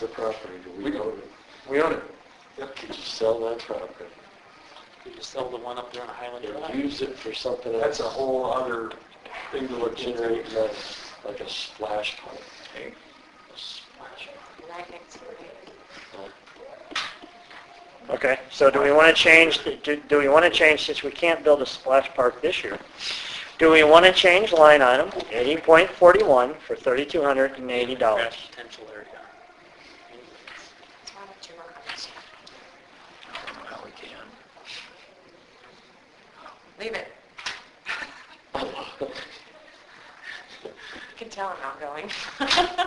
the property? Do We we do. own it? We own it. Yep. Did you sell that property? Did you sell the one up there on Highland And Drive? use it for something else? That's a whole other thing to Would look into. generate money, like a splash pad. A splash pad. Okay, so do we want to change, do do we want to change, since we can't build a splash park this year, do we want to change line item 80.41 for $3,280? Scratch Potential area. Anyways. Well, we can. Leave it. You can tell I'm not going.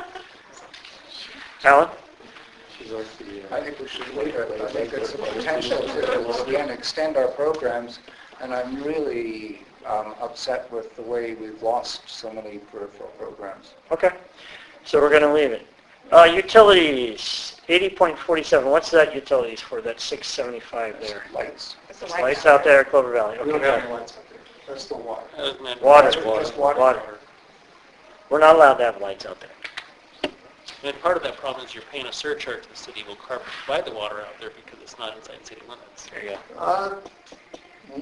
Alan? She's like the, I uh, think we should leave it. I think it's a potential to, again, extend our programs, and I'm really um, upset with the way we've lost so many peripheral programs. Okay, so we're going to leave it. Uh, Utilities, 80.47, what's that utilities for, that 675 there? Lights. It's the Lights out there at Clover Valley, We don't have okay. any lights up there. That's the water. Other than- Water, Just water. water. We're not allowed to have lights out there. And part of that problem is you're paying a surcharge to the city will carve, provide the water out there because it's not inside city limits. There you go. Uh,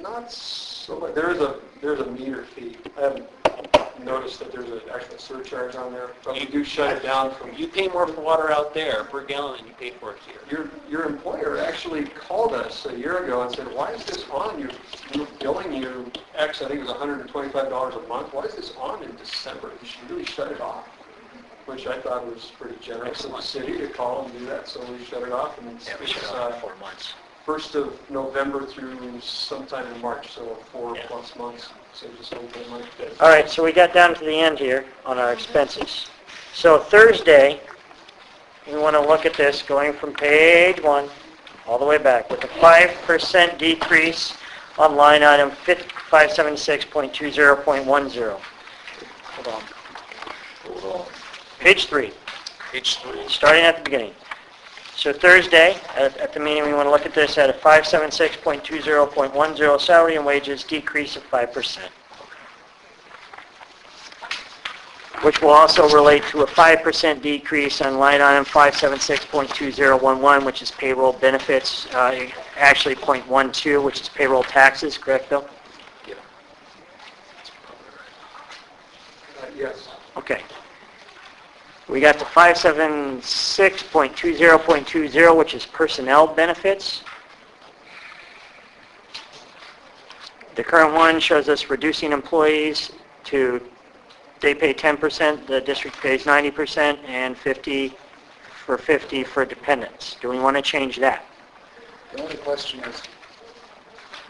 Not so much. There is a, there's a meter fee. I haven't noticed that there's an actual surcharge on there, but we do shut it down from, You pay more for water out there per gallon than you pay for it here. your, your employer actually called us a year ago and said, why is this on? You're you're billing you X, I think it was $125 a month. Why is this on in December? You should really shut it off, which I thought was pretty generous of the city to call and do that, so we shut it off. and it's- Yeah, we it's, shut it uh, Four months. first of November through sometime in March, so four Yeah. plus months, so just open money. All right, so we got down to the end here on our expenses. So Thursday, we want to look at this going from page one all the way back with a 5% decrease on line item 576.20.10. Hold on. Page three, Page three. starting at the beginning. So Thursday, at at the meeting, we want to look at this at a 576.20.10 salary and wages decrease of 5%. which will also relate to a 5% decrease on line item 576.2011, which is payroll benefits, uh, actually .12, which is payroll taxes, correct, Bill? Uh, Yes. Okay. We got the 576.20.20, which is personnel benefits. The current one shows us reducing employees to, they pay 10%, the district pays 90%, and 50 for 50 for dependents. Do we want to change that? The only question is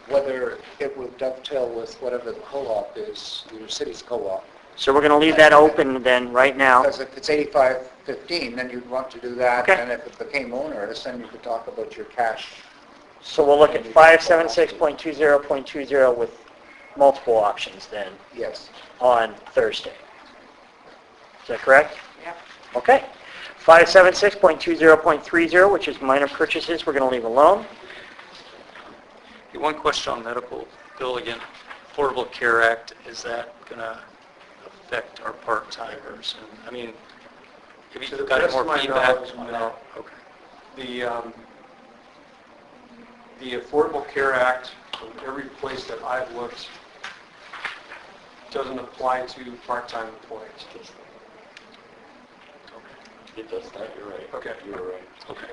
whether it would dovetail with whatever the co-op is, your city's co-op. So we're going to leave that open then, right now. Because if it's 8515, then you'd want to do that, Okay. and if it became onerous, then you could talk about your cash. So we'll look at 576.20.20 with multiple options then. Yes. on Thursday. Is that correct? Yep. Okay. 576.20.30, which is minor purchases, we're going to leave alone. Hey, One question on medical, Bill again, Affordable Care Act, is that going to affect our part-timers? And, I mean, have To the you got best more of my feedback? knowledge, no. No, okay. The, um, the Affordable Care Act, from every place that I've looked, doesn't apply to part-time employees. It does that, you're right. Okay. You're right. Okay.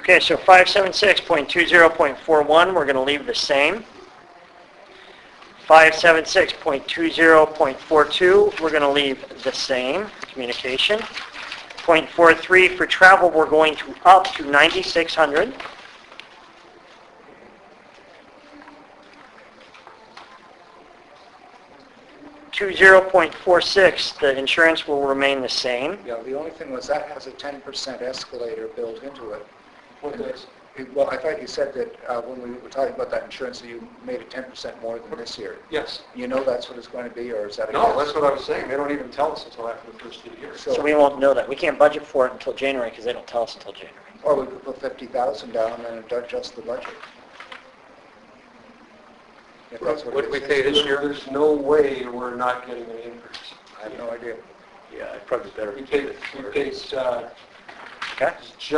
Okay, so 576.20.41, we're going to leave the same. 576.20.42, we're going to leave the same, communication. Point four three for travel, we're going to up to 9,600. Two zero point four six, the insurance will remain the same. Yeah, the only thing was that has a 10% escalator built into it. What does? It- Well, I thought you said that uh, when we were talking about that insurance, that you made it 10% more than this year. Yes. You know that's what it's going to be, or is that a guess? No, that's what I was saying. They don't even tell us until after the first of the year. So we won't know that. We can't budget for it until January because they don't tell us until January. Or we could put 50,000 down and adjust the budget. If that's What it did we is. pay this year? There's no way we're not getting an increase. I have no idea. Yeah, I probably better. We paid, we paid, uh, Okay?